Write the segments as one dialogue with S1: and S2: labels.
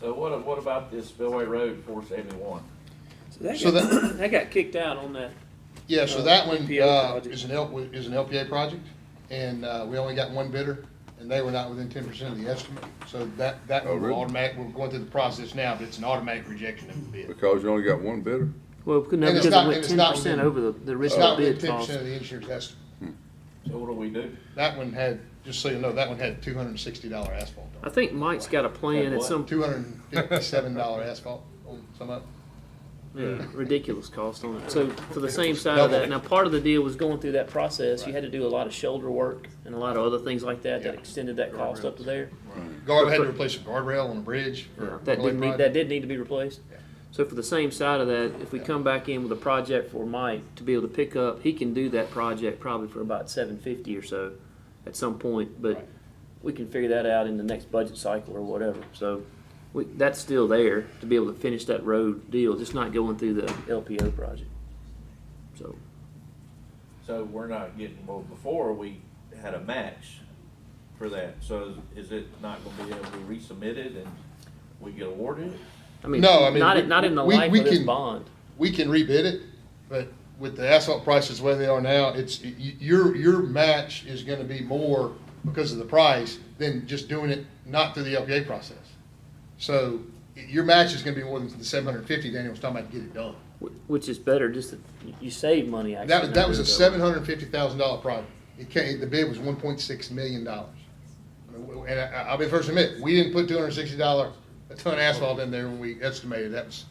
S1: So what, what about this Spillway Road, four seventy-one?
S2: So
S3: So that got, that got kicked out on that.
S2: Yeah, so
S3: Uh,
S2: that one,
S3: NPO
S2: uh,
S3: project.
S2: is an L, is an LPA project, and, uh, we only got one bidder, and they were not within ten percent of the estimate, so that, that
S4: Oh,
S2: will
S4: really?
S2: automatic, we're going through the process now, but it's an automatic rejection of the bid.
S4: Because you only got one bidder?
S3: Well, no,
S2: And
S3: because
S2: it's
S3: it
S2: not-
S3: went
S2: and it's
S3: ten
S2: not
S3: percent
S2: within-
S3: over the, the
S2: It's
S3: original
S2: not within
S3: bid
S2: ten
S3: cost.
S2: percent of the insurance estimate.
S1: So what do we do?
S2: That one had, just so you know, that one had two hundred and sixty dollar asphalt on
S3: I think Mike's got a plan at some
S2: it, two hundred and fifty-seven dollar asphalt on some of it.
S3: Yeah, ridiculous cost on it. So for the same side of that, now part of the deal was going through that process, you had to do a lot of shoulder work and a lot of other things like that that
S2: Yeah.
S3: extended that cost up to there.
S2: Guard, had to replace a guardrail on a bridge for.
S3: That
S2: Gully
S3: did need,
S2: project.
S3: that did need to be replaced.
S2: Yeah.
S3: So for the same side of that, if we come back in with a project for Mike to be able to pick up, he can do that project probably for about seven fifty or so at some point, but
S2: Right.
S3: we can figure that out in the next budget cycle or whatever, so we, that's still there to be able to finish that road deal, just not going through the LPO project. So,
S1: So we're not getting, well, before we had a match for that, so is it not gonna be able to be resubmitted and we get awarded?
S3: I mean,
S2: No, I mean,
S3: not,
S2: we-
S3: in- not in the
S2: we-
S3: life
S2: we
S3: of this
S2: can-
S3: bond.
S2: we can rebid it, but with the asphalt prices where they are now, it's, y- your, your match is gonna be more because of the price than just doing it not through the LPA process. So y- your match is gonna be more than the seven hundred and fifty Daniel was talking about to get it done.
S3: Wh- Which is better, just that y- you save money actually.
S2: That, was- that was a
S3: not doing
S2: seven hundred and fifty thousand dollar project. It came, the bid was one point six million dollars. And I, I'll be the first to admit, we didn't put two hundred and sixty dollar a ton of asphalt in there when we estimated. That was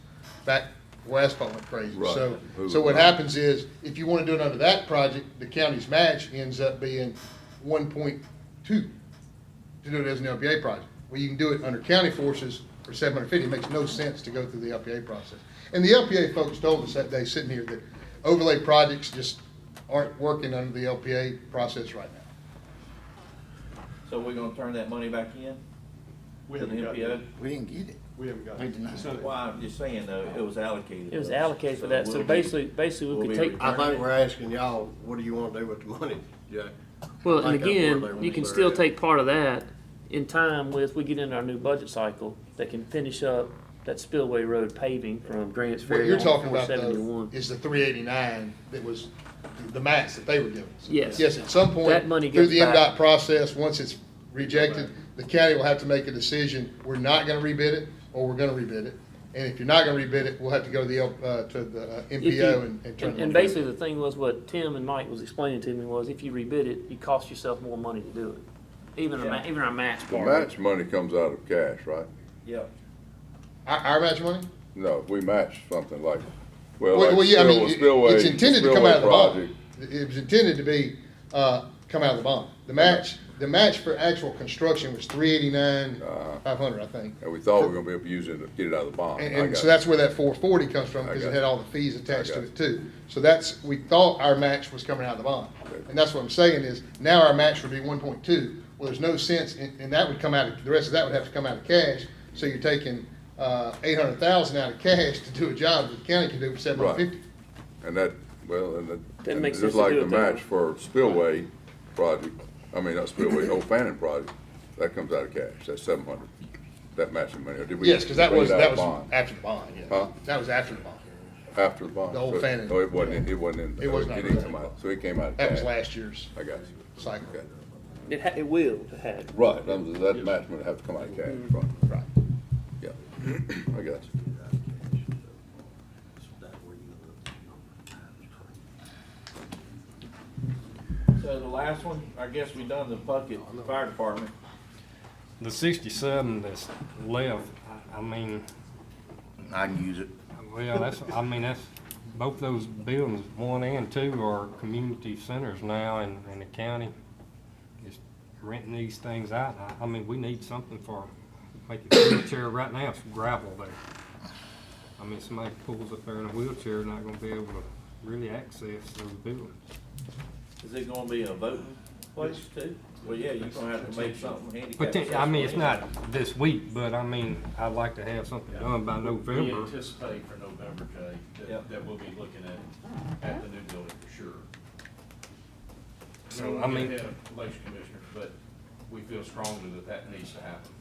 S2: back where asphalt went crazy.
S4: Right.
S2: So, so what happens is, if you wanna do it under that project, the county's match ends up being one point two to do it as an LPA project. Well, you can do it under county forces for seven hundred fifty, it makes no sense to go through the LPA process. And the LPA folks told us that day sitting here that overlay projects just aren't working under the LPA process right now.
S1: So we're gonna turn that money back in?
S5: We
S1: To the
S5: haven't got it.
S1: NPO?
S6: We didn't get it.
S5: We haven't got
S6: We
S5: it.
S6: denied
S5: It's not-
S1: Well, I'm just saying though, it was allocated.
S3: It was allocated for that, so
S1: we'll be-
S3: basically, basically
S1: we'll
S3: we could
S1: be
S3: take,
S1: returned.
S5: I think we're asking y'all, what do you wanna do with the money, Jack?
S3: well, and
S5: like that overlay
S3: again,
S5: when
S3: you
S5: they
S3: can
S5: blur
S3: still
S5: it.
S3: take part of that in time with, we get into our new budget cycle, that can finish up that spillway road paving from Grants
S2: What
S3: Ferry
S2: you're
S3: on
S2: talking
S3: four
S2: about though,
S3: seventy-one.
S2: is the three eighty-nine that was the max that they were giving. us.
S3: Yes.
S2: Yes, at some point,
S3: That money
S2: through
S3: goes
S2: the
S3: back.
S2: MDOT process, once it's rejected, the county will have to make a decision, we're not gonna rebid it, or we're gonna rebid it. And if you're not gonna rebid it, we'll have to go to the, L- uh, to the uh,
S3: If you-
S2: MPO and, and turn
S3: And,
S2: it.
S3: and
S2: over.
S3: basically the thing was what Tim and Mike was explaining to me was if you rebid it, you cost yourself more money to do it. Even, a ma-
S1: Yeah.
S3: even our match
S4: The
S3: part. of it.
S4: match money comes out of cash, right?
S1: Yep.
S2: Our, our match money?
S4: No, we match something like, well,
S2: Well, well,
S4: like
S2: yeah, I
S4: Spillway,
S2: mean,
S4: Spillway.
S2: it's intended to come out of the bond.
S4: project.
S2: It was intended to be, uh, come out of the bond. The match, the match for actual construction was three eighty-nine, five hundred, I think.
S4: And Uh, we thought we were gonna be using it, get it out of the bond.
S2: And,
S4: I
S2: and
S4: got
S2: so
S4: it.
S2: that's where that four forty comes from,
S4: I
S2: because it
S4: got
S2: had
S4: you.
S2: all the fees attached
S4: I
S2: to
S4: got
S2: it too. So that's, we thought our match was coming out of the bond.
S4: Okay.
S2: And that's what I'm saying is, now our match would be one point two. Well, there's no sense, and, and that would come out, of the rest of that would have to come out of cash. So you're taking, uh, eight hundred thousand out of cash to do a job that the county can do for seven hundred fifty.
S4: And that, well, and that.
S3: That
S4: and
S3: makes sense
S4: Just
S3: to
S4: like
S3: do
S4: the
S3: it that
S4: match for Spillway project, I mean, not Spillway, Old Fannin project, that comes out of cash, that's seven hundred, that matching money. Or did we
S2: Yes, because that
S4: bring it
S2: was,
S4: out
S2: that
S4: of
S2: was
S4: bond
S2: after the bond, yeah.
S4: Huh?
S2: That was after the bond.
S4: After the bond.
S2: the Old
S4: So-
S2: Fannin.
S4: No, it wasn't, in- it wasn't in.
S2: It was not
S4: didn't
S2: in
S4: come
S2: that.
S4: out, So it came out of cash.
S2: That was last year's
S4: I got you.
S2: cycle.
S4: Okay.
S3: It, ha- it will have.
S4: Right, that was, that match would have to come out of cash, right,
S2: Right.
S4: yeah, I got you.
S1: So the last one, I guess we done the bucket, fire department.
S7: The sixty-seven that's left, I- I mean,
S6: I can use it.
S7: well, that's, I mean, that's, both those buildings, one and two, are community centers now, and, and the county is renting these things out. I, I mean, we need something for, like the wheelchair right now, it's gravel there. I mean, somebody pulls up there in a wheelchair, not gonna be able to really access those buildings.
S1: Is it gonna be a voting place too? Well, yeah, you're gonna have to make something handicap.
S7: But then, I mean, it's
S1: accessible.
S7: not this week, but I mean, I'd like to have something done by
S8: We
S7: November.
S8: anticipate for November, Jay,
S1: Yep.
S8: that, that we'll be looking at, at the new building for sure.
S7: So,
S8: We don't
S7: I
S8: wanna
S7: mean-
S8: get ahead of Relations Commissioner, but we feel strongly that that needs to happen.